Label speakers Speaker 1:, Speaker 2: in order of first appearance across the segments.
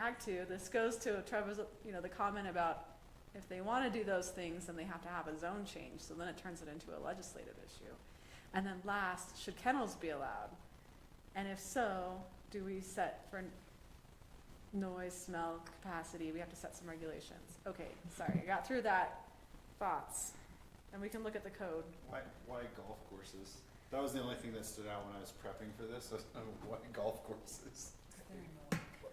Speaker 1: Act Two, this goes to Trevor's, you know, the comment about if they wanna do those things, then they have to have a zone change, so then it turns it into a legislative issue. And then last, should kennels be allowed? And if so, do we set for noise, smell, capacity, we have to set some regulations? Okay, sorry, I got through that, thoughts, and we can look at the code.
Speaker 2: Why, why golf courses? That was the only thing that stood out when I was prepping for this. I was like, why golf courses?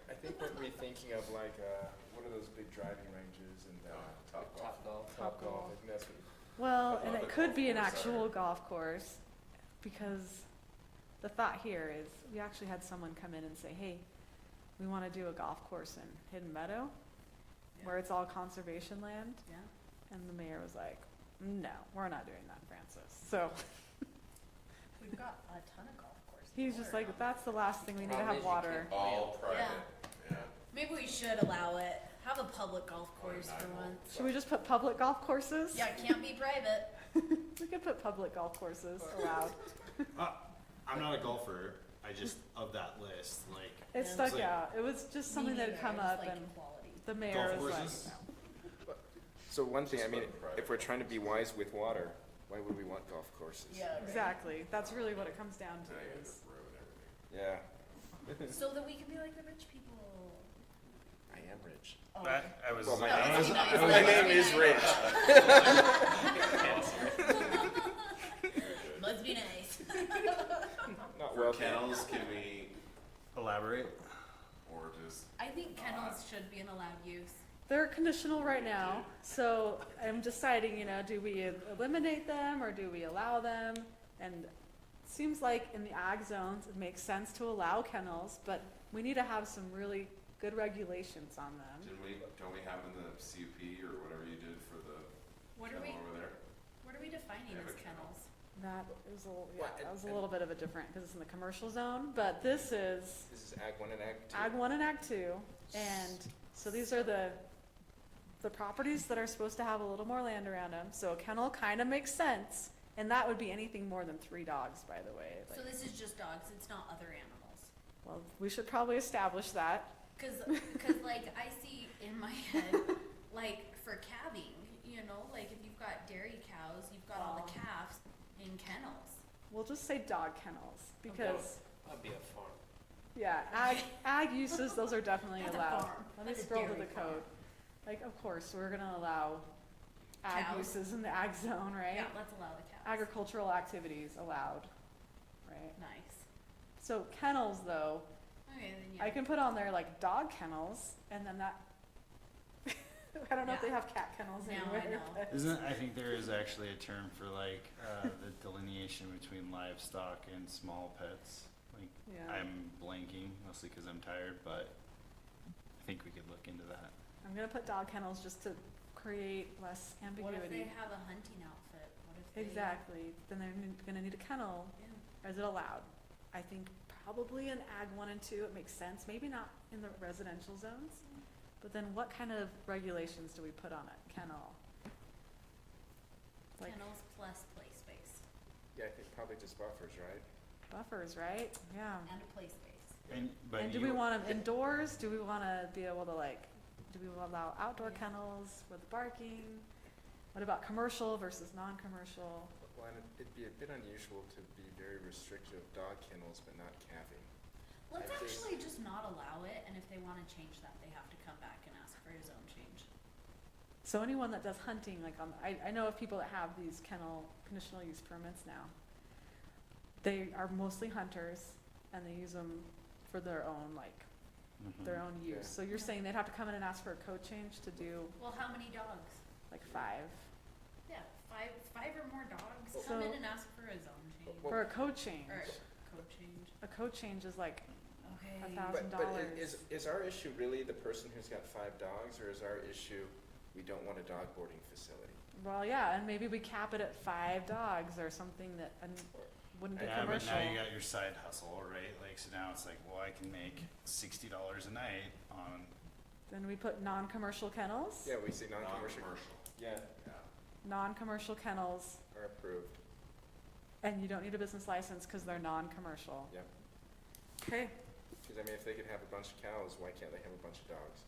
Speaker 3: I think what we're thinking of like, uh, what are those big driving ranges and, uh, Top Golf?
Speaker 1: Top
Speaker 3: Golf,
Speaker 1: Golf.
Speaker 3: I think that's what.
Speaker 1: Well,
Speaker 3: That's
Speaker 1: and
Speaker 3: not
Speaker 1: it
Speaker 3: the
Speaker 1: could
Speaker 3: golf
Speaker 1: be an
Speaker 3: course,
Speaker 1: actual
Speaker 3: sorry.
Speaker 1: golf course, because the thought here is, we actually had someone come in and say, hey, we wanna do a golf course in Hidden Meadow, where it's all conservation land,
Speaker 4: Yeah.
Speaker 1: and the mayor was like, no, we're not doing that, Francis. So,
Speaker 4: We've got a ton of golf courses.
Speaker 1: he's just
Speaker 4: We're
Speaker 1: like,
Speaker 4: not-
Speaker 1: that's the last thing, we need to have water.
Speaker 5: All private, yeah.
Speaker 4: Maybe we should allow it, have a public golf course for
Speaker 5: Nine holes.
Speaker 4: once.
Speaker 1: Should we just put public golf courses?
Speaker 4: Yeah, it can't be private.
Speaker 1: We could put public golf courses allowed.
Speaker 2: Uh, I'm not a golfer. I just, of that list, like,
Speaker 1: It
Speaker 4: Yeah.
Speaker 1: stuck
Speaker 2: Like-
Speaker 1: out. It was just something that had come
Speaker 4: Meaning
Speaker 1: up
Speaker 4: there's, like,
Speaker 1: and
Speaker 4: Quality.
Speaker 1: the mayor
Speaker 2: golf
Speaker 1: was like,
Speaker 2: courses?
Speaker 3: So one thing, I
Speaker 5: Just
Speaker 3: mean,
Speaker 5: about private
Speaker 3: if we're trying to be wise with water, why would we want golf courses?
Speaker 4: Yeah. right.
Speaker 1: exactly, that's really what it comes down
Speaker 5: Now you
Speaker 1: to
Speaker 5: have
Speaker 1: is.
Speaker 5: to ruin everything.
Speaker 3: Yeah,
Speaker 4: So that we can be like the rich people.
Speaker 3: I am rich.
Speaker 4: Oh.
Speaker 6: I was.
Speaker 3: Well, my
Speaker 4: No,
Speaker 3: name
Speaker 4: that's
Speaker 3: is,
Speaker 4: nice.
Speaker 3: my name is Rich.
Speaker 4: Let's be nice.
Speaker 3: Not
Speaker 5: For
Speaker 3: wealthy.
Speaker 5: kennels, can we,
Speaker 2: Elaborate.
Speaker 5: or just,
Speaker 4: I think kennels should be an allowed use.
Speaker 1: They're conditional right now, so I'm deciding, you know, do we eliminate them or do we allow them? And it seems like in the ag zones, it makes sense to allow kennels, but we need to have some really good regulations on them.
Speaker 5: did we, don't we have in the CUP or whatever you did for the
Speaker 4: What are
Speaker 5: kennel
Speaker 4: we,
Speaker 5: over there?
Speaker 4: what are we defining
Speaker 5: Yeah,
Speaker 4: as
Speaker 5: but kennel.
Speaker 4: kennels?
Speaker 1: That is a, little- yeah,
Speaker 3: Well,
Speaker 1: that was a
Speaker 3: and-
Speaker 1: little bit of a different, because it's in the commercial zone, but this is
Speaker 3: This is Ag one and Ag two.
Speaker 1: Ag one and Ag two, and so these are the, the properties that are supposed to have a little more land around them, so a kennel kinda makes sense, and that would be anything more than three dogs, by the way, like,
Speaker 4: So this is just dogs, it's not other animals.
Speaker 1: well, we should probably establish that.
Speaker 4: Cause, cause like I see in my head, like for calving, you know, like if you've got dairy cows, you've got all the calves in kennels.
Speaker 1: We'll just say dog kennels, because,
Speaker 7: That'd be a farm.
Speaker 1: yeah, ag, ag uses, those are definitely
Speaker 4: That's a
Speaker 1: allowed.
Speaker 4: farm.
Speaker 1: Let me
Speaker 4: That's a
Speaker 1: scroll to
Speaker 4: dairy
Speaker 1: the
Speaker 4: farm.
Speaker 1: code, like, of course, we're gonna allow ag
Speaker 4: Cows.
Speaker 1: uses in the ag zone, right?
Speaker 4: Yeah, let's allow the cows.
Speaker 1: Agricultural activities allowed, right?
Speaker 4: Nice.
Speaker 1: So kennels, though,
Speaker 4: Okay, then yeah.
Speaker 1: I can put on there like dog kennels, and then that. I don't know if they
Speaker 4: Yeah.
Speaker 1: have cat kennels
Speaker 4: Now I
Speaker 1: anywhere.
Speaker 4: know.
Speaker 1: but-
Speaker 2: Isn't, I think there is actually a term for like, uh, the delineation between livestock and small pets. Like,
Speaker 1: Yeah.
Speaker 2: I'm blanking mostly because I'm tired, but I think we could look into that.
Speaker 1: I'm gonna put dog kennels just to create less
Speaker 4: What if they
Speaker 1: ambiguity.
Speaker 4: have a hunting outfit? What if they?
Speaker 1: Exactly. Then they're n- gonna need a kennel.
Speaker 4: Yeah.
Speaker 1: Is it allowed? I think probably in ag one and two, it makes sense. Maybe not in the residential zones. But then what kind of regulations do we put on a kennel? Like
Speaker 4: Kennels plus play space
Speaker 3: Yeah, I think probably just buffers, right?
Speaker 1: buffers, right? Yeah.
Speaker 4: and a play space.
Speaker 2: And, but
Speaker 1: And do we
Speaker 2: you-
Speaker 1: want them indoors? Do we want to be able to like, do we allow outdoor
Speaker 4: Yeah.
Speaker 1: kennels with barking? What about commercial versus non-commercial?
Speaker 3: Well, and it'd- it'd be a bit unusual to be very restrictive of dog kennels, but not calving.
Speaker 4: Let's
Speaker 3: I'd say-
Speaker 4: actually just not allow it, and if they wanna change that, they have to come back and ask for a zone change.
Speaker 1: So anyone that does hunting, like on, I, I know of people that have these kennel conditional use permits now. They are mostly hunters and they use them for their own, like,
Speaker 2: Mhm.
Speaker 1: their own
Speaker 3: Yeah.
Speaker 1: use. So you're
Speaker 4: Yeah.
Speaker 1: saying they'd have to come in and ask for a code change to do
Speaker 4: Well, how many dogs?
Speaker 1: like five?
Speaker 4: Yeah, five, five or more dogs,
Speaker 1: Well-
Speaker 4: come in
Speaker 1: So-
Speaker 4: and ask for a zone change,
Speaker 3: Well-
Speaker 1: For a code change.
Speaker 4: or code change,
Speaker 1: A code change is like,
Speaker 4: okay.
Speaker 1: thou-
Speaker 3: But, but i-
Speaker 1: $1,000.
Speaker 3: is, is our issue really the person who's got five dogs, or is our issue, we don't want a dog boarding facility?
Speaker 1: Well, yeah, and maybe we cap it at five dogs or something that um, wouldn't be
Speaker 2: Yeah, but
Speaker 1: commercial.
Speaker 2: now you got your side hustle, right? Like, so now it's like, well, I can make sixty dollars a night on
Speaker 1: Then we put non-commercial kennels,
Speaker 3: Yeah, we say non-commercial.
Speaker 5: non-commercial,
Speaker 3: Yeah,
Speaker 5: yeah.
Speaker 1: non-commercial kennels,
Speaker 3: are approved.
Speaker 1: and you don't need a business license because they're non-commercial.
Speaker 3: Yep.
Speaker 1: Okay,
Speaker 3: Cause I mean, if they could have a bunch of cows, why can't they have a bunch of dogs?